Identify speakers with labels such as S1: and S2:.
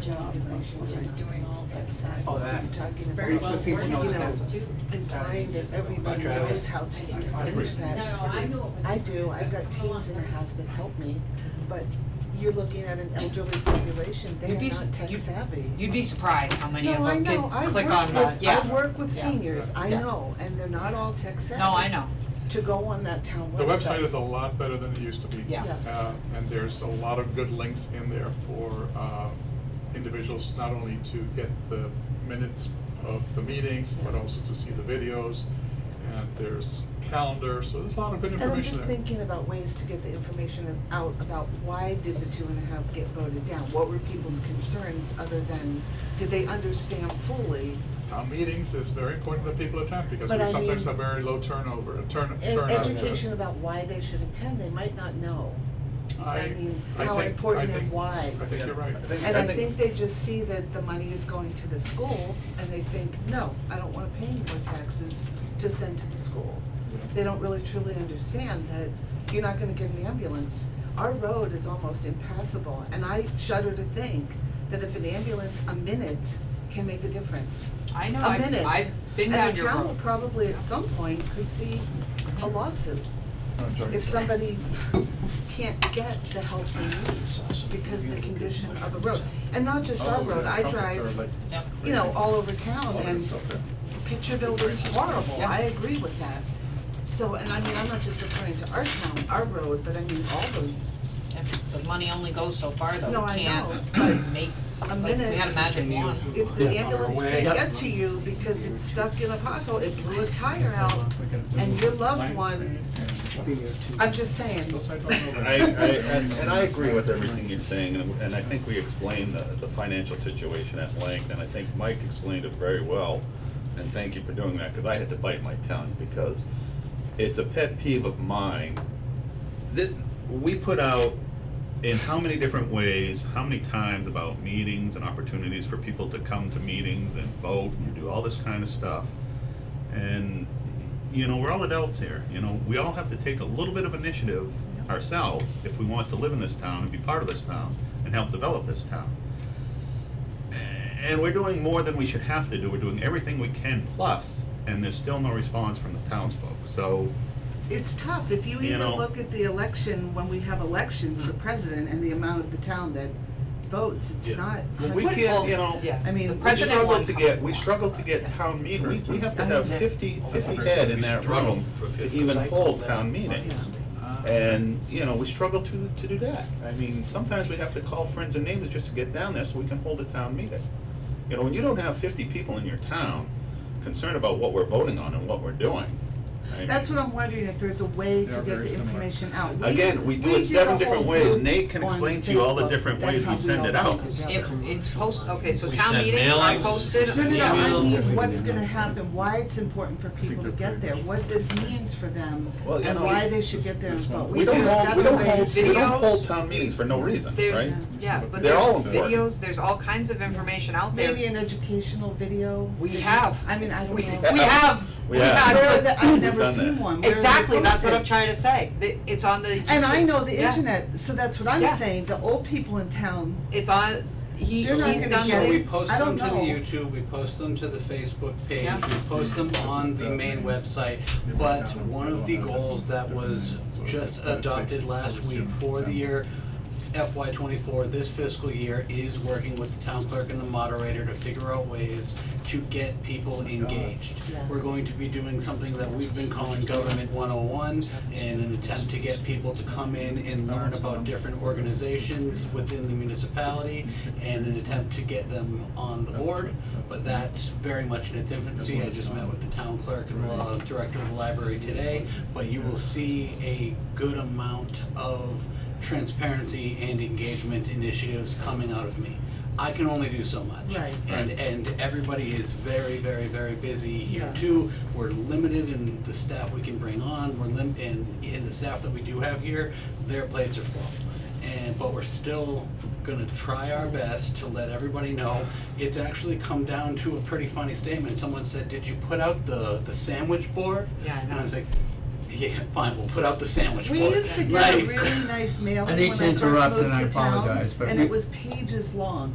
S1: job, just doing all that side.
S2: Oh, that.
S1: Talking
S3: Very
S1: about,
S3: well
S2: people
S3: worn
S2: know
S3: out
S2: that.
S3: guys, too.
S1: implying that everybody
S4: Travis.
S1: knows how to use the
S4: I agree.
S3: No,
S1: internet.
S3: no, I know it was.
S1: I do, I've got
S3: Hold on.
S1: teens in the house that help me, but you're looking at an elderly population, they
S5: You'd be
S1: are not
S5: s-
S1: tech
S5: you-
S1: savvy.
S5: You'd be surprised how many of
S1: No, I
S5: them
S1: know, I
S5: can click
S1: work
S5: on the,
S1: with,
S5: yeah.
S1: I work with
S5: Yeah.
S1: seniors, I
S5: Yeah.
S1: know, and they're not all tech savvy.
S5: No, I know,
S1: To go on that town website.
S4: The website is a lot better than it used to be.
S5: Yeah.
S1: Yeah.
S4: Uh, and there's a lot of good links in there for, uh, individuals, not only to get the minutes of the meetings, but also to see the videos. And there's calendar, so there's a lot of good
S1: And I'm
S4: information
S1: just
S4: there.
S1: thinking about ways to get the information out about why did the two and a half get voted down? What were people's concerns other than, did they understand fully?
S4: Town meetings is very important that people attend, because
S1: But
S4: we
S1: I
S4: sometimes
S1: mean-
S4: have very low turnover, turn,
S1: And
S4: turnout.
S1: education about why they should attend, they might not know.
S4: I,
S1: I mean,
S4: I
S1: how
S4: think-
S1: important
S4: I
S1: and
S4: think-
S1: why.
S4: I think you're right.
S2: Yeah, I think-
S1: And I think they just see that the money is going to the school and they think, no, I don't wanna pay any more taxes to send to the school. They don't really truly understand that you're not gonna get an ambulance. Our road is almost impassable and I shudder to think that if an ambulance, a minute can make a difference.
S5: I know,
S1: A
S5: I've,
S1: minute.
S5: I've been down your
S1: And the town will
S5: road. Mm-hmm.
S1: probably at some point could see a lawsuit if somebody can't get the help they need because of the condition of the road. And not just
S2: Oh,
S4: Oh,
S1: our road, I drive, you know, all over town and Pitcherville was horrible, I agree with that. So, and I mean, I'm not just referring to our town, our road, but I mean all the,
S5: If The money only goes so far
S1: No,
S5: though, we
S1: I
S5: can't make,
S1: A
S5: like, we
S1: minute.
S5: had a magic wand.
S1: if the
S2: Yeah.
S1: ambulance
S2: Away.
S1: can't get to you because it's stuck in a pothole, it blew a tire out, and your loved one, I'm just saying.
S6: I, I, and, and I agree with everything you're saying, and, and I think we explained the, the financial situation at length, and I think Mike explained it very well. And thank you for doing that, cause I had to bite my tongue, because it's a pet peeve of mine. That, we put out in how many different ways, how many times about meetings and opportunities for people to come to meetings and vote and do all this kind of stuff. And, you know, we're all adults here, you know, we all have to take a little bit of initiative ourselves if we want to live in this town and be part of this town and help develop this town. And we're doing more than we should have to do, we're doing everything we can plus, and there's still no response from the townsfolk, so,
S1: It's tough, if you
S6: You
S1: even
S6: know. Mm.
S1: look at the election, when we have elections for president and the amount of the town that votes, it's not.
S6: Well, we
S1: hundred-
S6: can't, you know,
S5: Yeah.
S1: I mean,
S5: The
S1: we
S6: we
S5: president
S6: struggle
S5: won.
S6: to get, we struggle to get town meetings, we have to have fifty, fifty head in that room to even hold town meetings. And, you know, we struggle to, to do that. I mean, sometimes we have to call friends and neighbors just to get down there so we can hold a town meeting. You know, when you don't have fifty people in your town concerned about what we're voting on and what we're doing. I mean,
S1: That's what I'm wondering, if there's a way
S2: They
S1: to
S2: are
S1: get
S2: very
S1: the
S2: similar.
S1: information out. We-
S6: Again, we do it
S1: did
S6: seven
S1: a
S6: different
S1: whole
S6: ways.
S1: group
S6: Nate can
S1: on
S6: explain to you all the
S1: Facebook.
S6: different
S1: That's
S6: ways
S1: how
S6: we send
S1: all
S6: it
S1: got
S6: out.
S1: together.
S5: If it's post, okay, so
S7: We
S5: town
S7: send
S5: meetings are
S7: mailings.
S5: posted,
S1: No, no, no, I
S7: Email.
S1: mean, what's gonna happen, why it's important for people to get there, what this means for them,
S6: Well, you
S1: and
S6: know,
S1: why
S6: we-
S1: they should get there and
S2: this
S1: vote.
S2: one-
S6: We don't
S1: figured out
S6: hold, we don't
S1: a way
S6: hold,
S1: to-
S6: we don't
S5: Videos.
S6: hold town meetings for no reason, right?
S5: there's, yeah, but
S6: They're
S5: there's
S6: all important.
S5: videos, there's all kinds of information out there.
S1: Maybe an educational video.
S5: We have.
S1: I mean, I don't
S5: We,
S1: know.
S5: we have, we
S6: We have.
S5: have.
S1: Where are the- I've never
S6: Done that.
S1: seen one. Where are they
S5: Exactly, that's what
S1: posted?
S5: I'm trying to say, Th- it's on the.
S1: And I know the
S5: Yeah.
S1: internet, so that's what I'm
S5: Yeah.
S1: saying. The old people in town,
S5: It's on, he,
S1: You're not
S5: he's
S1: gonna
S5: done
S1: get
S2: So we
S1: it.
S5: the,
S2: post
S1: I
S2: them
S1: don't
S2: to the
S1: know.
S2: YouTube, we post them to the Facebook page,
S5: Yeah.
S2: we post them on the main website. But one of the goals that was just adopted last week for the year FY twenty-four, this fiscal year, is working with the town clerk and the moderator to figure out ways to get people engaged.
S1: Yeah.
S2: We're going to be doing something that we've been calling Government one oh one, in an attempt to get people to come in and learn about different organizations within the municipality, and an attempt to get them on the board, but that's very much in its infancy, I just met with the town clerk and the director of the library today, but you will see a good amount of transparency and engagement initiatives coming out of me. I can only do so much.
S1: Right.
S2: And, and everybody is very, very, very busy here
S1: Yeah.
S2: too. We're limited in the staff we can bring on, we're lim, and, in the staff that we do have here, their plates are full. And, but we're still gonna try our best to let everybody know. It's actually come down to a pretty funny statement. Someone said, did you put out the, the sandwich board?
S5: Yeah, I
S2: And I
S5: know.
S2: was like, yeah, fine, we'll put out the sandwich board.
S1: we used to get a
S2: Like-
S1: really nice mail
S7: I
S1: when I
S7: need
S1: first
S7: to
S1: moved
S7: interrupt and I
S1: to town,
S7: apologize, but
S1: and
S7: we-
S1: it was pages long.